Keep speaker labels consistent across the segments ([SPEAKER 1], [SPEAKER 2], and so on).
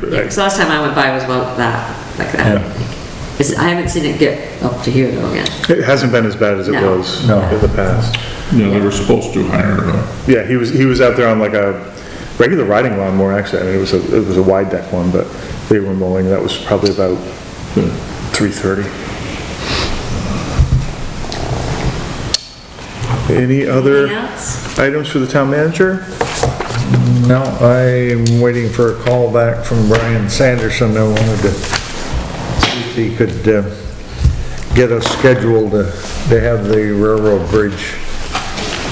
[SPEAKER 1] Because last time I went by was about that, like that.
[SPEAKER 2] Yeah.
[SPEAKER 1] It's- I haven't seen it get up to here though again.
[SPEAKER 3] It hasn't been as bad as it
[SPEAKER 1] No.
[SPEAKER 3] was
[SPEAKER 2] No.
[SPEAKER 3] in the past.
[SPEAKER 4] Yeah, they were supposed to hire uh, a,
[SPEAKER 3] Yeah, he was, he was out there on like a regular riding lawnmower, actually, I mean, it was a, it was a wide deck one, but they were mowing, that was probably about hmm, three thirty. Any
[SPEAKER 1] Anything
[SPEAKER 3] other
[SPEAKER 1] else?
[SPEAKER 3] items for the town manager?
[SPEAKER 2] No, I'm waiting for a call back from Brian Sanderson. I wanted to see if he could uh, get us scheduled to to have the railroad bridge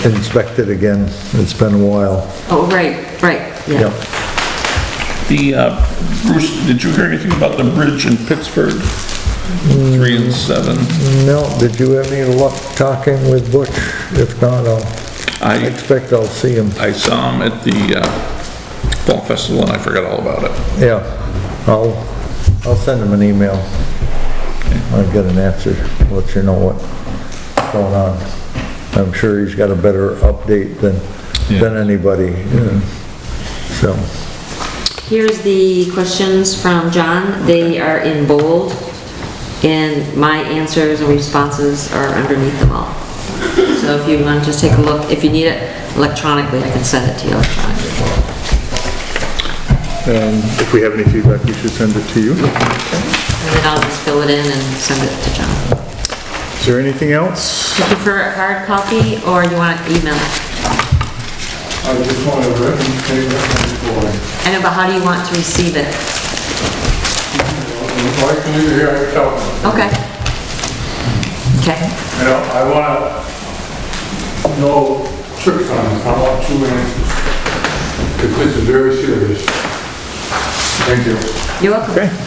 [SPEAKER 2] inspected again. It's been a while.
[SPEAKER 1] Oh, right, right, yeah.
[SPEAKER 2] Yep.
[SPEAKER 4] the, uh, Bruce, did you hear anything about the bridge in Pittsburgh? Three and seven.
[SPEAKER 2] No, did you have any luck talking with Butch? If not, I'll, I
[SPEAKER 4] I,
[SPEAKER 2] expect I'll see him.
[SPEAKER 4] I saw him at the, uh, Fall Festival and I forgot all about it.
[SPEAKER 2] Yeah, I'll, I'll send him an email. I'll get an answer, let you know what's going on. I'm sure he's got a better update than, than anybody, you know, so.
[SPEAKER 1] Here's the questions from John. They are in bold, and my answers and responses are underneath them all. So if you want, to just take a look. If you need it electronically, I can send it to you electronically.
[SPEAKER 3] And if we have any feedback, we should send it to you.
[SPEAKER 1] And then I'll just fill it in and send it to John.
[SPEAKER 3] Is there anything else?
[SPEAKER 1] Do you prefer a hard copy, or you want it emailed?
[SPEAKER 5] I just want to recognize that
[SPEAKER 1] I know, but how do you want to receive it?
[SPEAKER 5] I'm employed. If I can do here, I tell them.
[SPEAKER 1] Okay. Okay.
[SPEAKER 5] You know, I want to know trip times, I want two answers. Because this is very serious. Thank you.
[SPEAKER 1] You're welcome.
[SPEAKER 3] Okay.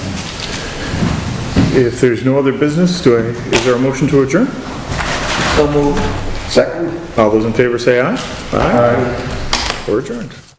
[SPEAKER 3] If there's no other business, do I, is there a motion to adjourn?
[SPEAKER 6] So moved.
[SPEAKER 3] Second. All those in favor say aye. Aye. We're adjourned.